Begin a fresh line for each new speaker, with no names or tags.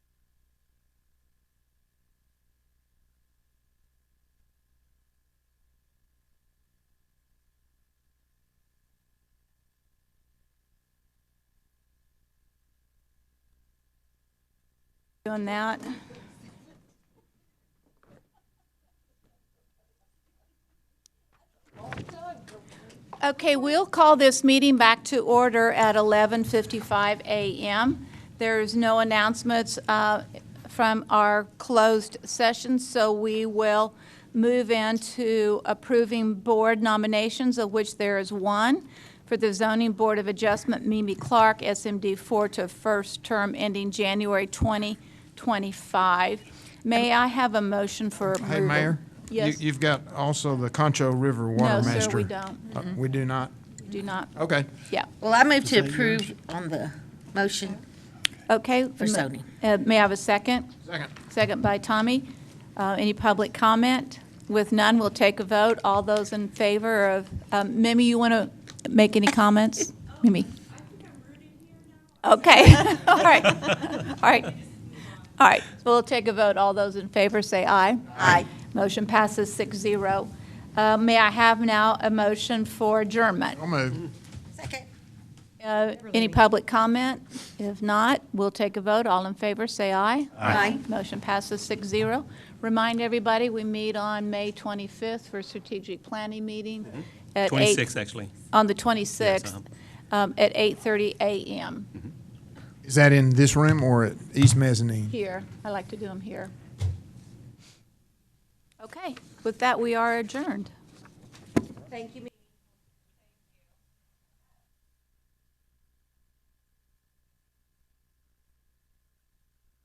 doing that. Okay, we'll call this meeting back to order at 11:55 a.m. There's no announcements uh, from our closed session, so we will move into approving board nominations, of which there is one, for the Zoning Board of Adjustment, Mimi Clark, SMD 4 to first term ending January 2025. May I have a motion for approval?
Hey, Mayor? you-
Yes.
You've got also the Concho River
No,
Water Master.
sir, we don't.
Uh, We do not?
Do not,
Okay.
yeah.
Well, I move to approve on the motion.
Okay.
For zoning.
Uh, May I have a second?
Second.
Second by Tommy. Uh, Any public comment? With none, we'll take a vote. All those in favor of, um, Mimi, you want to make any comments? Mimi? Okay, all right, all right, all right. We'll take a vote. All those in favor, say aye.
Aye.
Motion passes six zero. Uh, May I have now a motion for adjournment?
I'll move.
Second.
Uh, Any public comment? If not, we'll take a vote. All in favor, say aye.
Aye.
Motion passes 6-0. Remind everybody, we meet on May 25th for strategic planning meeting at 8...
26, actually.
On the
Yes,
26th, um, at 8:30 a.m.
Is that in this room or at East Mezzanine?
here. I like to do them here. Okay, with that, we are adjourned.
Thank you,